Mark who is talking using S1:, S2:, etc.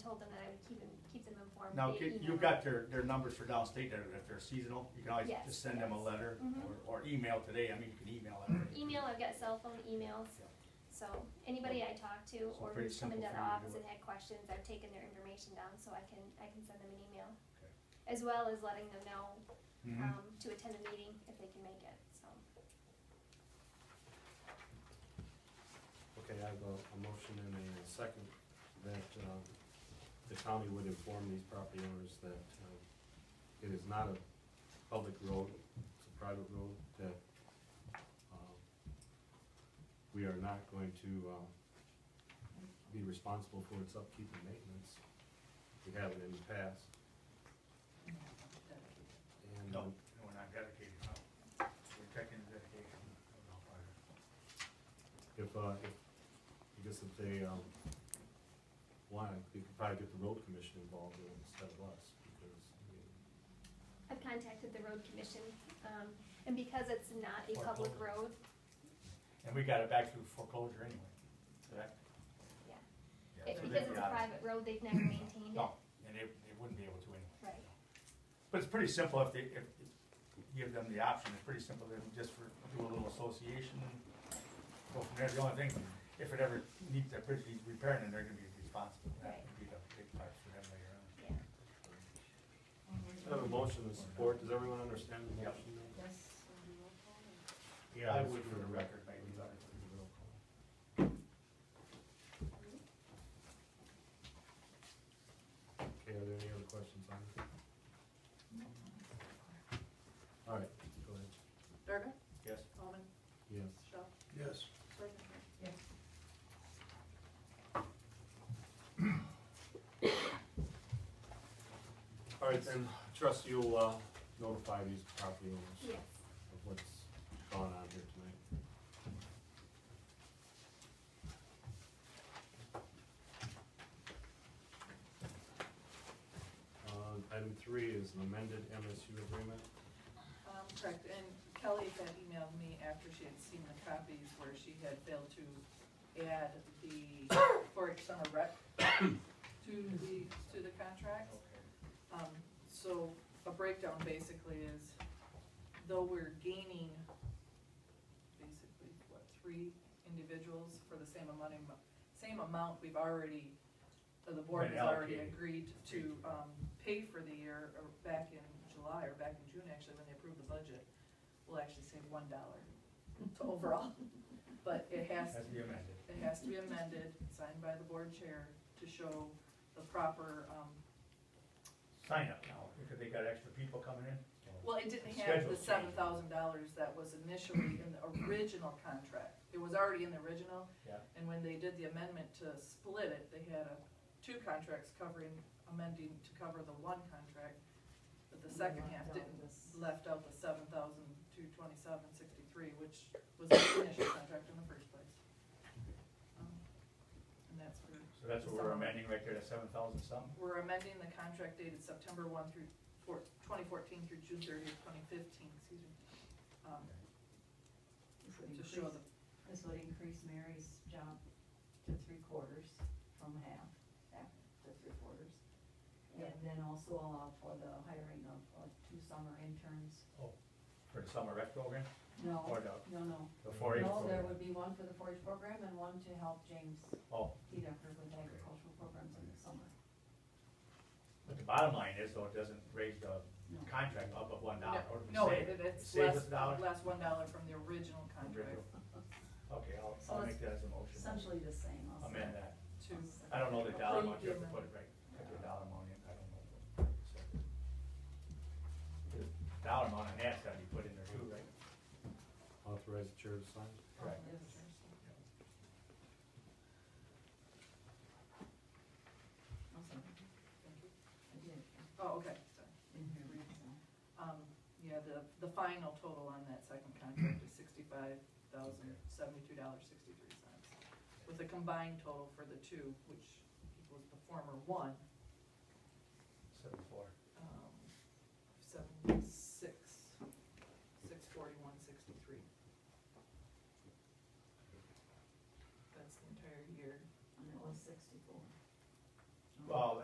S1: told them that I would keep them, keep them informed.
S2: Now,
S1: via
S2: ca-
S1: email.
S2: you've got their, their numbers for downstate, there. if they're seasonal, you can always
S1: Yes,
S2: just send them a
S1: yes.
S2: letter
S1: Mhm.
S2: or, or email today, I mean, you can email them.
S1: Email, I've got cell phone emails,
S2: Yeah.
S1: so anybody I talk to
S2: So
S1: or
S2: pretty
S1: who's come into
S2: simple
S1: the
S2: for you to
S1: office
S2: do
S1: and had questions, I've taken their information down, so I can, I can send them an email.
S2: Okay.
S1: As well as letting them know,
S2: Mhm.
S1: um, to attend the meeting if they can make it, so.
S3: Okay, I have a, a motion and a second that, um, the county would inform these property owners that, um, it is not a public road, it's a private road, that, um, we are not going to, um, be responsible for its upkeep and maintenance. We have it in the past, and.
S2: No, no, we're not dedicated, no. We're checking the dedication. of the fire.
S3: If, uh, if, I guess if they, um, want, we could probably get the road commission involved in it instead of us, because, I mean,
S1: I've contacted the road commission, um, and because it's not a public
S2: Foreclosure.
S1: road,
S2: And we got it back through foreclosure anyway, correct?
S1: Yeah.
S2: Yeah,
S1: it,
S2: so
S1: because
S2: they'd
S1: it's a
S2: be out of it.
S1: private road, they've never maintained it,
S2: No, and they, they wouldn't be able to anyway.
S1: right?
S2: But it's pretty simple if they, if you give them the option, it's pretty simple, they would just for, do a little association and go from there. The only thing, if it ever needs, that bridge needs repairing, then they're gonna be responsible. That would be the big part for them later on.
S1: Yeah.
S3: I have a motion to support, does everyone understand the motion? now?
S4: Yes, on the roll call, and
S3: Yeah,
S2: I
S3: that's
S2: would for the record, maybe.
S3: Without the roll call. Okay, are there any other questions on it? All right, go ahead.
S4: Durga,
S2: Yes.
S4: Coleman,
S3: Yes.
S4: Shaw,
S2: Yes.
S4: Seligman.
S3: All right, then, trust you'll, uh, notify these property owners.
S1: Yes,
S3: of what's gone on here tonight. Uh, item three is an amended MSU agreement.
S4: Um, correct, and Kelly had emailed me after she had seen the copies where she had failed to add the four-H summer rec to the, to the contract. Um, so a breakdown basically is, though we're gaining basically, what, three individuals for the same amount, of mo- same amount we've already, uh, the board
S2: Been
S4: has already
S2: allocated.
S4: agreed to, um, pay for the year, or back in July, or back in June, actually, when they approved the budget, we'll actually save one dollar to overall, but it has
S2: Has
S4: to
S2: to be amended.
S4: it has to be amended, signed by the board chair, to show the proper, um,
S2: Sign up now, because they got extra people coming in.
S4: well, it didn't have
S2: Schedule
S4: the
S2: change.
S4: seven thousand dollars that was initially in the original contract. It was already in the original.
S2: Yeah.
S4: And when they did the amendment to split it, they had a, two contracts covering, amending to cover the one contract. But the second half didn't, left out the seven thousand two twenty-seven sixty-three, which was the initial contract in the first place. Um, And that's where
S2: So that's what we're amending right there, the seven thousand something?
S4: We're amending the contract dated September one through four, twenty fourteen through June thirtieth, twenty fifteen, excuse me. um,
S5: This would
S4: To show
S5: increase,
S4: the,
S5: this would increase Mary's job to three quarters from half, back to three quarters. And then also allow for the hiring of, of two summer interns.
S2: For the summer rec program
S5: No,
S2: or the,
S5: no, no.
S2: the four H
S5: No,
S2: program?
S5: there would be one for the forage program and one to help James
S2: Oh,
S5: Dedecker with agricultural programs in the summer.
S2: but the bottom line is though, it doesn't raise the
S5: No.
S2: contract up of one dollar. or we
S4: no,
S2: save
S4: it-
S2: it.
S4: it's
S2: Save
S4: less,
S2: us a dollar?
S4: less one dollar from the original contract
S2: Okay, I'll,
S5: So
S2: I'll
S5: it's
S2: make that as a motion.
S5: Essentially the same also.
S2: Amend that.
S4: to,
S2: I don't know the dollar amount, you have to
S4: Approve the
S2: put it right, put the dollar amount in, I don't know. So, the Dollar amount on that's gotta be put in there too, right?
S3: Authorize the chair to sign.
S2: Correct.
S5: Yes. I'm sorry,
S4: thank you.
S5: I did,
S4: Oh, okay, sorry.
S5: didn't hear you, so.
S4: Um, yeah, the, the final total on that second contract is sixty-five thousand, seventy-two dollars, sixty-three cents. With a combined total for the two, which equals the former one,
S2: Seven four.
S4: um,